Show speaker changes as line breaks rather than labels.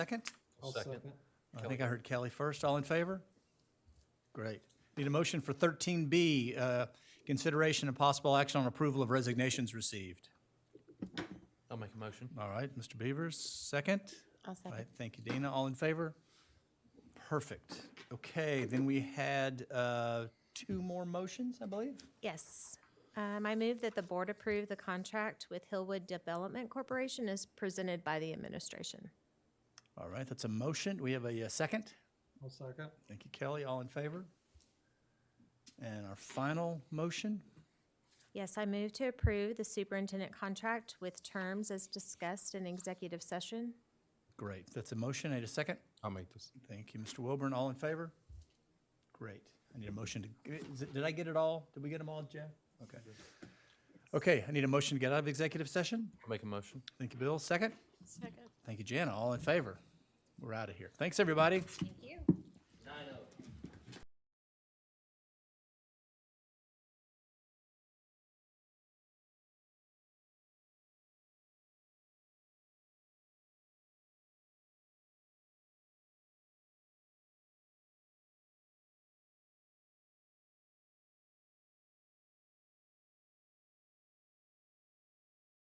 Second?
I'll
Second.
second.
I think I heard Kelly first. All in favor? Great. Need a motion for thirteen B, uh, consideration and possible action on approval of resignations received.
I'll make a motion.
All right, Mr. Beavers, second?
I'll
All
second.
right, thank you, Dina. All in favor? Perfect. Okay, then we had, uh, two more motions, I believe?
Yes. Um, I move that the board approve the contract with Hillwood Development Corporation as presented by the administration.
All right, that's a motion. We have a uh, second?
I'll second.
Thank you, Kelly. All in favor? And our final motion?
Yes, I move to approve the superintendent contract with terms as discussed in executive session.
Great, that's a motion. Need a second?
I'll make this.
Thank you, Mr. Wilburn. All in favor? Great. I need a motion to, is it- did I get it all? Did we get them all, Jeff? Okay. Okay, I need a motion to get out of executive session.
Make a motion.
Thank you, Bill. Second? Second. Thank you, Jana. All in favor? We're out of here. Thanks, everybody.
Thank you.
Nine oh.